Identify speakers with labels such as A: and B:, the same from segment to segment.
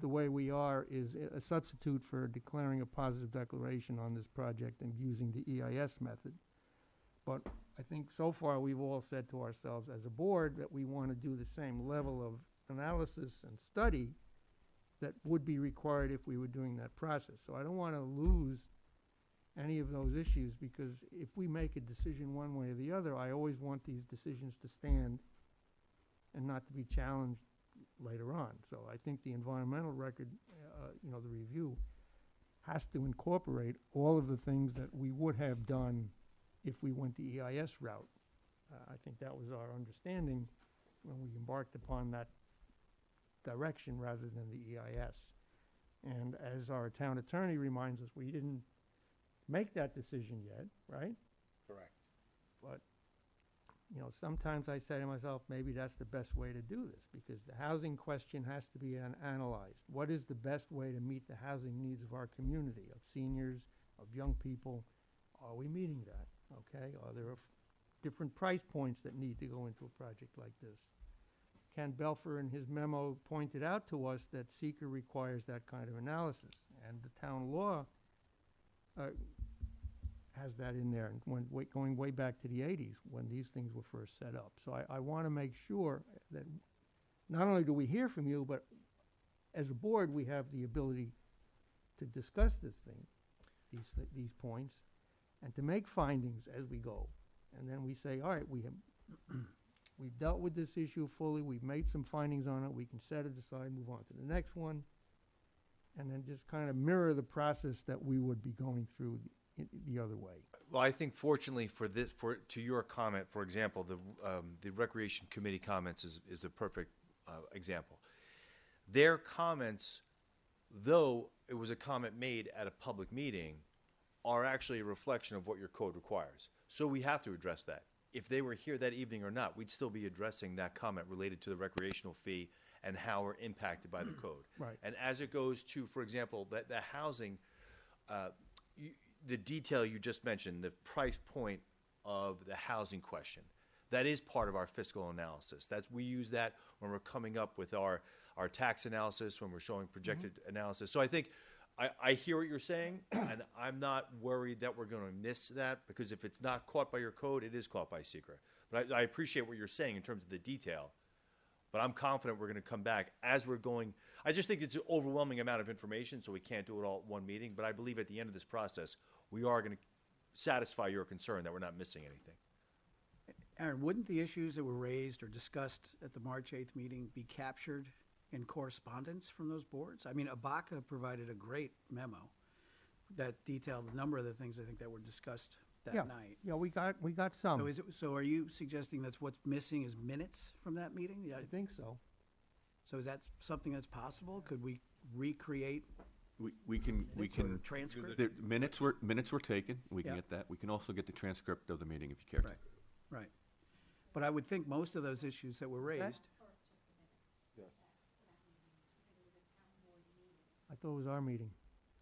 A: the way we are is a- a substitute for declaring a positive declaration on this project and using the EIS method. But I think so far, we've all said to ourselves as a board that we want to do the same level of analysis and study that would be required if we were doing that process. So I don't want to lose any of those issues because if we make a decision one way or the other, I always want these decisions to stand and not to be challenged later on. So I think the environmental record, uh, you know, the review has to incorporate all of the things that we would have done if we went the EIS route. Uh, I think that was our understanding when we embarked upon that direction rather than the EIS. And as our town attorney reminds us, we didn't make that decision yet, right?
B: Correct.
A: But, you know, sometimes I say to myself, maybe that's the best way to do this, because the housing question has to be an- analyzed. What is the best way to meet the housing needs of our community, of seniors, of young people? Are we meeting that, okay? Are there f- different price points that need to go into a project like this? Ken Belfer in his memo pointed out to us that seeker requires that kind of analysis, and the town law uh, has that in there, and when, wa- going way back to the eighties, when these things were first set up. So I, I want to make sure that not only do we hear from you, but as a board, we have the ability to discuss this thing, these, thi- these points, and to make findings as we go. And then we say, all right, we have, we've dealt with this issue fully, we've made some findings on it, we can set it aside, move on to the next one. And then just kind of mirror the process that we would be going through the, the other way.
B: Well, I think fortunately for this, for, to your comment, for example, the, um, the Recreation Committee comments is, is a perfect, uh, example. Their comments, though it was a comment made at a public meeting, are actually a reflection of what your code requires. So we have to address that. If they were here that evening or not, we'd still be addressing that comment related to the recreational fee and how we're impacted by the code.
A: Right.
B: And as it goes to, for example, that, the housing, uh, you- the detail you just mentioned, the price point of the housing question, that is part of our fiscal analysis. That's, we use that when we're coming up with our, our tax analysis, when we're showing projected analysis. So I think, I, I hear what you're saying, and I'm not worried that we're gonna miss that, because if it's not caught by your code, it is caught by secret. But I, I appreciate what you're saying in terms of the detail, but I'm confident we're going to come back as we're going. I just think it's an overwhelming amount of information, so we can't do it all at one meeting. But I believe at the end of this process, we are going to satisfy your concern that we're not missing anything.
C: Aaron, wouldn't the issues that were raised or discussed at the March 8th meeting be captured in correspondence from those boards? I mean, Abaca provided a great memo that detailed a number of the things I think that were discussed
A: Yeah,
C: that night.
A: Yeah, we got, we got
C: So
A: some.
C: is it, so are you suggesting that's what's missing is minutes from that meeting? Yeah,
A: I think so.
C: So is that something that's possible? Could we recreate?
D: We, we can, we
C: Minutes or
D: can.
C: transcript?
D: the Minutes were, minutes were taken, we can
C: Yeah.
D: get that. We can also get the transcript of the meeting if you care.
C: Right, right. But I would think most of those issues that were raised,
A: I thought it was our meeting,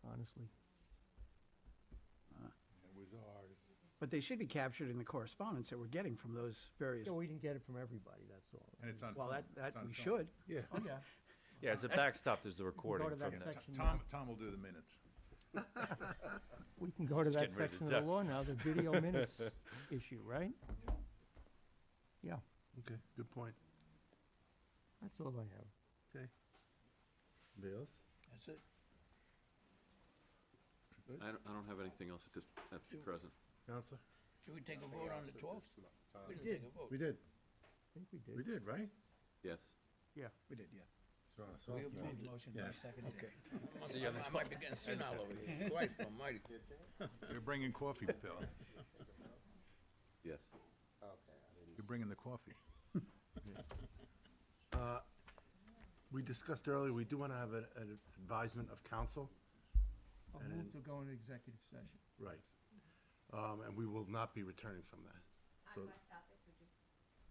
A: honestly.
C: but they should be captured in the correspondence that we're getting from those various,
A: Yeah, we didn't get it from everybody, that's all.
E: And it's on.
C: well, that,
E: film. It's
C: that
E: on
C: we
E: film.
C: should.
F: Yeah,
A: Oh, yeah.
B: Yeah, as a backstop, there's the
A: to
B: recording
A: that
B: from
E: Yeah,
B: that.
A: section.
E: T- Tom, Tom will do the minutes.
A: We can go to that
B: getting ready to
A: section of the
B: die.
A: law now, the video minutes issue, right? Yeah,
F: okay, good point.
A: that's all I have.
F: Okay. Anybody else? That's it.
D: I don't, I don't have anything else at this, at present.
F: Counselor?
G: Should we take a vote on the twelfth? We didn't take a vote.
F: We did,
A: I think we
F: we
A: did.
F: did, right?
D: Yes.
A: Yeah.
C: We did, yeah.
F: So-
G: We approved it.
C: Motion, I
F: Yeah.
C: seconded it.
B: See you on the
G: I might be getting senile over here. Christ almighty.
E: You're bringing coffee, Bill.
D: Yes.
E: You're bringing the coffee.
F: We discussed earlier, we do want to have an an advisement of council,
A: I'll
F: And
A: move
F: then-
A: to go into executive session.
F: right? Um, And we will not be returning from that. So-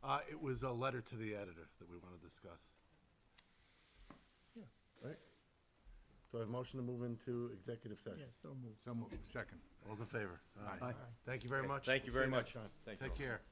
F: Uh, It was a letter to the editor that we want to discuss. Yeah. Right? Do I have a motion to move into executive
A: Yes,
F: session?
A: so moved.
E: So, moved. second.
F: All's in favor?
E: Aye.
F: Thank you very much.
B: Thank you
F: We'll
B: very
F: see
B: much.
F: next time.
B: Thank you.
F: Take care.